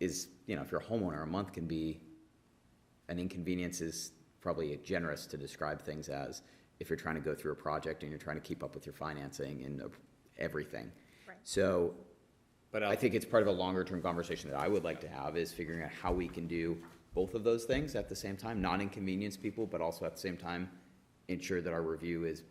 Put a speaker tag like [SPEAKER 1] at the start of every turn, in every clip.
[SPEAKER 1] is, you know, if you're a homeowner, a month can be, an inconvenience is probably generous to describe things as, if you're trying to go through a project and you're trying to keep up with your financing and uh, everything.
[SPEAKER 2] Right.
[SPEAKER 1] So
[SPEAKER 3] But
[SPEAKER 1] I
[SPEAKER 3] I
[SPEAKER 1] think it's part of a longer-term conversation that I would like to have, is figuring out how we can do both of those things at the same time, not inconvenience people, but also at the same time, ensure that our review is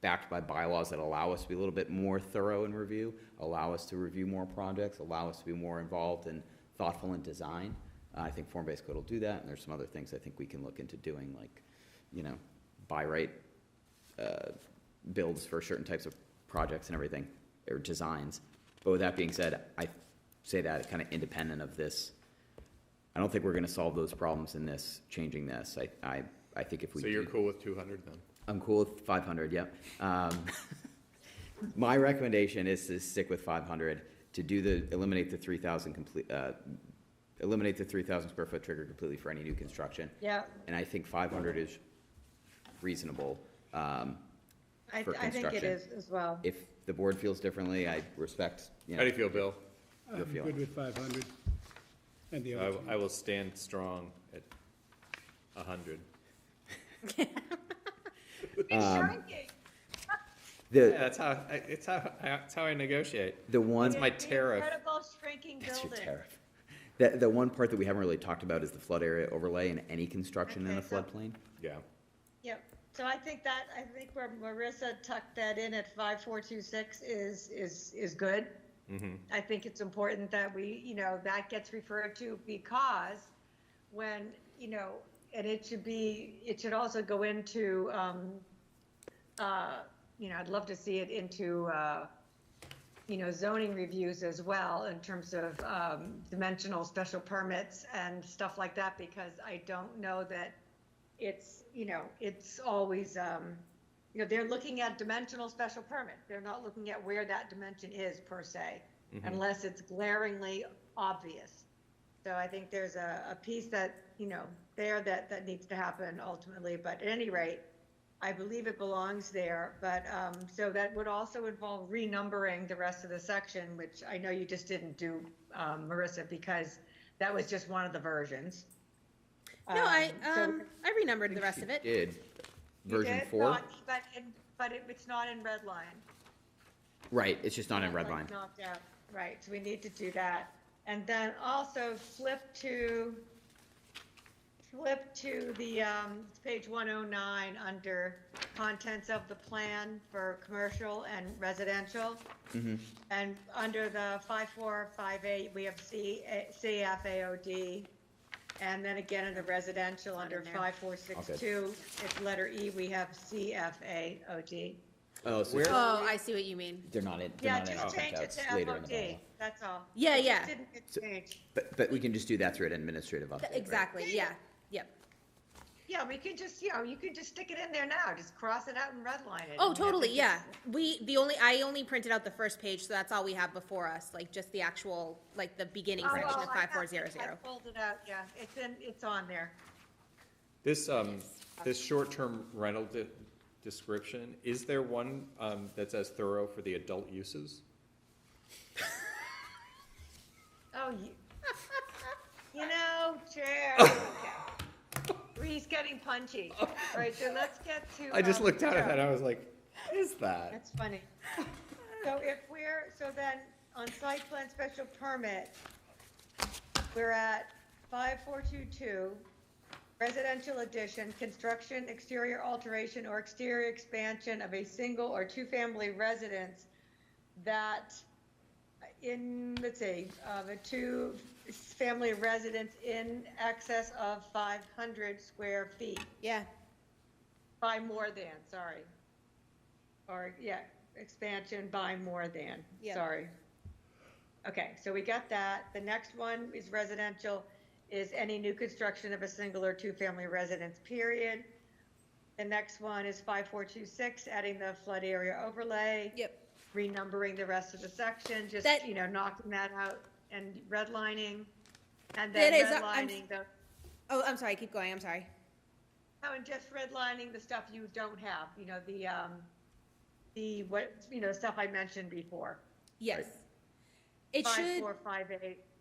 [SPEAKER 1] backed by bylaws that allow us to be a little bit more thorough in review, allow us to review more projects, allow us to be more involved and thoughtful in design. Uh, I think form-based code will do that, and there's some other things I think we can look into doing, like, you know, buy right uh, builds for certain types of projects and everything, or designs. But with that being said, I say that kind of independent of this. I don't think we're gonna solve those problems in this, changing this. I, I, I think if we.
[SPEAKER 3] so you're
[SPEAKER 1] do-
[SPEAKER 3] cool with two hundred then?
[SPEAKER 1] I'm cool with five hundred, yep. Um, my recommendation is to stick with five hundred, to do the, eliminate the three thousand complete, uh, eliminate the three thousand square foot trigger completely for any new construction.
[SPEAKER 2] Yeah,
[SPEAKER 1] And I think five hundred is reasonable. Um,
[SPEAKER 2] I,
[SPEAKER 1] For
[SPEAKER 2] I think it
[SPEAKER 1] construction.
[SPEAKER 2] is as well.
[SPEAKER 1] if the board feels differently, I respect, you
[SPEAKER 3] How do
[SPEAKER 1] know,
[SPEAKER 3] you feel, Bill?
[SPEAKER 1] Your
[SPEAKER 4] I'm
[SPEAKER 1] feeling.
[SPEAKER 4] good with five hundred. And the
[SPEAKER 3] I,
[SPEAKER 4] other
[SPEAKER 3] w- I will stand strong at a hundred.
[SPEAKER 1] Um,
[SPEAKER 3] Yeah,
[SPEAKER 1] the,
[SPEAKER 3] that's how, I- it's how, I- that's how I negotiate.
[SPEAKER 1] the one.
[SPEAKER 3] That's my tariff.
[SPEAKER 2] Incredible shrinking
[SPEAKER 1] That's your
[SPEAKER 2] building.
[SPEAKER 1] tariff. The, the one part that we haven't really talked about is the flood area overlay and any construction in a
[SPEAKER 2] Okay, so-
[SPEAKER 1] floodplain.
[SPEAKER 3] Yeah.
[SPEAKER 2] Yep, so I think that, I think where Marissa tucked that in at five, four, two, six is, is, is good. I think it's important that we, you know, that gets referred to because when, you know, and it should be, it should also go into, um, uh, you know, I'd love to see it into, uh, you know, zoning reviews as well in terms of um, dimensional special permits and stuff like that, because I don't know that it's, you know, it's always, um, you know, they're looking at dimensional special permit. They're not looking at where that dimension is per se, unless it's glaringly obvious. So I think there's a, a piece that, you know, there that, that needs to happen ultimately, but at any rate, I believe it belongs there, but, um, so that would also involve renumbering the rest of the section, which I know you just didn't do, um, Marissa, because that was just one of the versions.
[SPEAKER 5] No, I
[SPEAKER 2] so-
[SPEAKER 5] um I renumbered the rest of it.
[SPEAKER 1] Did,
[SPEAKER 2] You
[SPEAKER 1] version
[SPEAKER 2] did?
[SPEAKER 1] four,
[SPEAKER 2] Not- But, it- but it- it's not in red line.
[SPEAKER 1] right, it's just not in red
[SPEAKER 2] Like
[SPEAKER 1] line.
[SPEAKER 2] Knocked out, right, so we need to do that. And then also flip to, flip to the, um, it's page one oh nine, under contents of the plan for commercial and residential.
[SPEAKER 1] Mm-hmm.
[SPEAKER 2] And under the five four, five eight, we have C, eh, CFAOD. And then again, in the residential, under
[SPEAKER 5] in there.
[SPEAKER 2] five four six two, it's letter E, we have CFAOD.
[SPEAKER 1] Oh, so
[SPEAKER 3] Where-
[SPEAKER 5] Oh, I see what you mean.
[SPEAKER 1] they're not in, they're
[SPEAKER 2] Yeah,
[SPEAKER 1] not in
[SPEAKER 2] just change it
[SPEAKER 1] contacts
[SPEAKER 2] to
[SPEAKER 1] later in the
[SPEAKER 2] FOD,
[SPEAKER 1] bylaw.
[SPEAKER 2] that's all. It
[SPEAKER 5] Yeah,
[SPEAKER 2] just
[SPEAKER 5] yeah.
[SPEAKER 2] didn't get
[SPEAKER 1] So-
[SPEAKER 2] changed.
[SPEAKER 1] But, but we can just do that through an administrative update, right?
[SPEAKER 5] Exactly. Yeah. Yep.
[SPEAKER 2] Yeah, we could just, you know, you could just stick it in there now, just cross it out and redline it.
[SPEAKER 5] Oh,
[SPEAKER 2] and
[SPEAKER 5] totally.
[SPEAKER 2] have it
[SPEAKER 5] Yeah. We the only I only printed out the first page, so that's all we have before us. Like just the actual like the beginning
[SPEAKER 2] just-
[SPEAKER 5] section
[SPEAKER 2] Oh,
[SPEAKER 5] of
[SPEAKER 2] I
[SPEAKER 5] five four
[SPEAKER 2] got
[SPEAKER 5] zero
[SPEAKER 2] it. I
[SPEAKER 5] zero.
[SPEAKER 2] pulled it out, yeah, it's in, it's on there.
[SPEAKER 3] This, um, this short-term rental de- description, is there one, um, that's as thorough for the adult uses?
[SPEAKER 2] Oh, you, you know, Chair. He's getting punchy. All right, so let's get to.
[SPEAKER 3] Oh. I just
[SPEAKER 2] um,
[SPEAKER 3] looked down at
[SPEAKER 2] Joe.
[SPEAKER 3] that, I was like, what is that?
[SPEAKER 2] That's funny. So if we're, so then on site plan special permit, we're at five four two two, residential addition, construction, exterior alteration or exterior expansion of a single or two-family residence that in, let's see, of a two-family residence in excess of five hundred square feet.
[SPEAKER 5] Yeah.
[SPEAKER 2] By more than, sorry. Or, yeah, expansion by more than,
[SPEAKER 5] Yeah.
[SPEAKER 2] sorry. Okay, so we got that. The next one is residential, is any new construction of a single or two-family residence, period. The next one is 5426, adding the flood area overlay,
[SPEAKER 5] Yep.
[SPEAKER 2] renumbering the rest of the section, just,
[SPEAKER 5] That-
[SPEAKER 2] you know, knocking that out and redlining. And then
[SPEAKER 5] That is, uh, I'm-
[SPEAKER 2] redlining the,
[SPEAKER 5] Oh, I'm sorry. Keep going. I'm sorry.
[SPEAKER 2] Oh, and just redlining the stuff you don't have, you know, the, um, the, what, you know, stuff I mentioned before.
[SPEAKER 5] Yes. It
[SPEAKER 2] Five,
[SPEAKER 5] should.
[SPEAKER 2] four, five, eight.